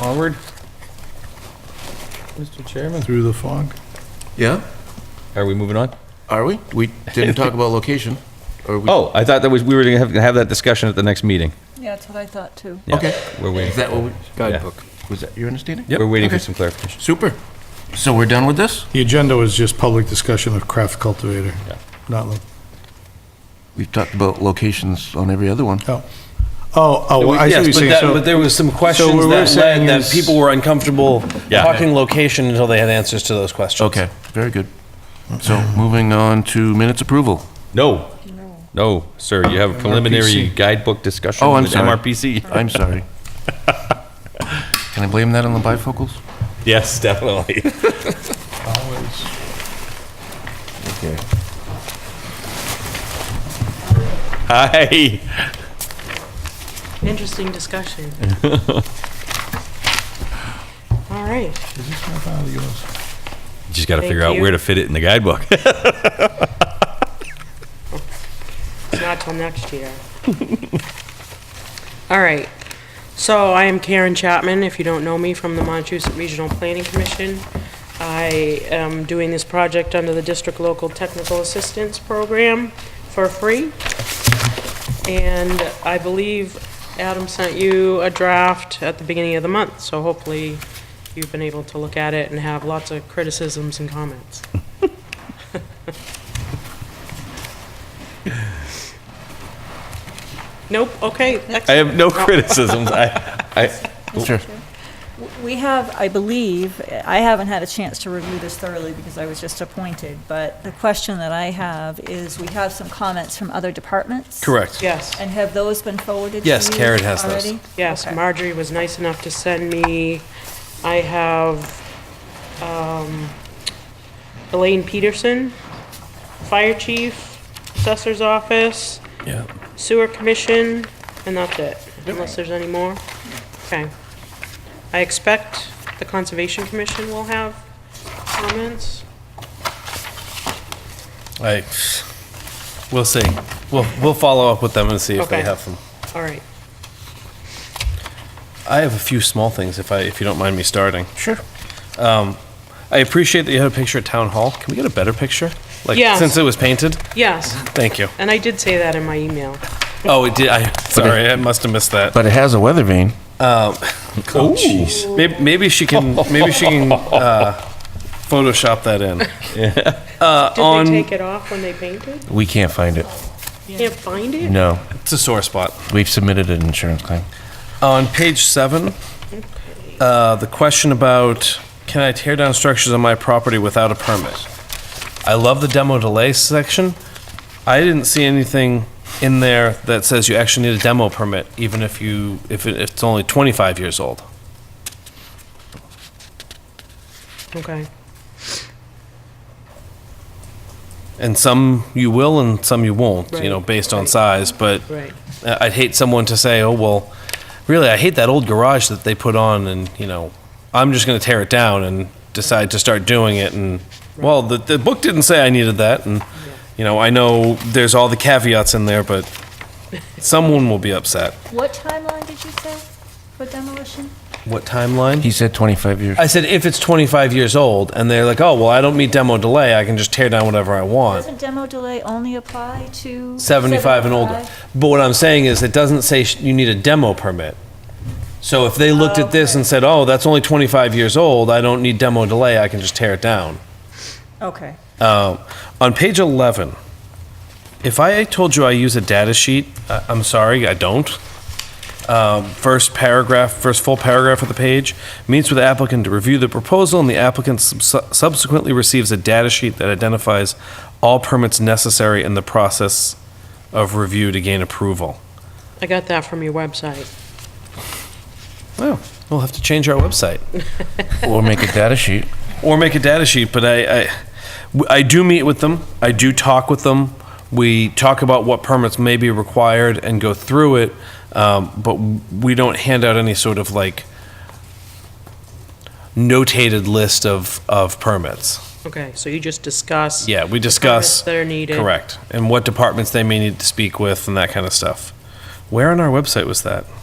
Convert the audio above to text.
Onward. Mr. Chairman. through the fog. Yeah? Are we moving on? Are we? We didn't talk about location. Or we, Oh, I thought that was, we were going to have, have that discussion at the next meeting. Yeah, that's what I thought too. Yeah, Okay. We're Is waiting, that what we, Guidebook. was that your understanding? we're waiting for Okay. some clarification. Super. So we're done with this? The agenda was just public discussion of craft cultivator, Yeah. not, lo- We've talked about locations on every other one. oh. Oh, oh, well, I see what you're Yes, but saying. that, So- but there was some questions what we're that saying led that is- people were uncomfortable Yeah. talking location until they had answers to those questions. Okay, very good. So moving on to minutes approval. No, no, sir, you Oh, have a preliminary MRPC. guidebook discussion Oh, I'm with sorry. MRPC. I'm sorry. Can I blame that on the bifocals? Yes, definitely. Okay. Hi. Interesting discussion. All right. Is this map out of yours? Just got to Thank figure out you. where to fit it in the guidebook. It's not till next year. All right. So I am Karen Chapman, if you don't know me, from the Montechusett Regional Planning Commission. I am doing this project under the District Local Technical Assistance Program for free. And I believe Adam sent you a draft at the beginning of the month, so hopefully you've been able to look at it and have lots of criticisms and comments. Nope, okay, Oh, excellent. I have no criticisms. I, I, Sure. We have, I believe, I haven't had a chance to review this thoroughly because I was just appointed, but the question that I have is, we have some comments from other departments? Correct. Yes. And have those been forwarded to Yes, you Karen has those. already? Yes, Okay. Marjorie was nice enough to send me, I have um, Elaine Peterson, Fire Chief, Assessor's Office, Yeah. Sewer Commission, and that's it, unless there's any more. Okay. I expect the Conservation Commission will have comments. I, we'll see. We'll, we'll follow up with them and see if they Okay. have them. All right. I have a few small things if I, if you don't mind me starting. Sure. Um, I appreciate that you had a picture at town hall. Can we get a better picture? Like Yes. since it was painted. Yes, Mm-hmm. Thank you. and I did say that in my email. Oh, it did. I sorry, I must have missed that. But it has a weather vane. Oh, jeez. Maybe, maybe she can. Maybe she can uh, Photoshop that in. Did they take it off when they painted? Uh, We can't find it. Can't find it? No, It's a sore spot. we've submitted an insurance claim. On page seven, uh, the question about can I tear down structures on my property without a permit? I love the demo delay section. I didn't see anything in there that says you actually need a demo permit, even if you if, it, if it's only 25 years old. Okay. And some you will, and some you won't. You know, Right, based on right. size, but. Right. Uh, I'd hate someone to say, "Oh well, really, I hate that old garage that they put on, and you know, I'm just going to tear it down and decide to start doing it." And well, the the book didn't say I needed that, and you know, I know there's all the caveats in there, but someone will be upset. What timeline did you say for demolition? What timeline? He said 25 years. I said if it's 25 years old, and they're like, "Oh well, I don't meet demo delay. I can just tear down whatever I want." Doesn't demo delay only apply to? 75 and older. 75? But what I'm saying is, it doesn't say sh- you need a demo permit. So if they looked at this and said, oh, that's only 25 years old, I don't need demo delay, I can just tear it down. Okay, Um, On page 11, if I told you I use a data sheet, I- I'm sorry, I don't. Um, First paragraph, first full paragraph of the page, meets with the applicant to review the proposal, and the applicant subs- subsequently receives a data sheet that identifies all permits necessary in the process of review to gain approval. I got that from your website. Well, we'll have to change our website. Or make a data sheet. or make a data sheet. But I, I, I do meet with them. I do talk with them. We talk about what permits may be required and go through it. Um, but we don't hand out any sort of like notated list of, of permits. Okay, so you just discuss. Yeah, we permits discuss. That are needed. Correct. And what departments they may need to speak with and that kind of stuff. Where on our website was that?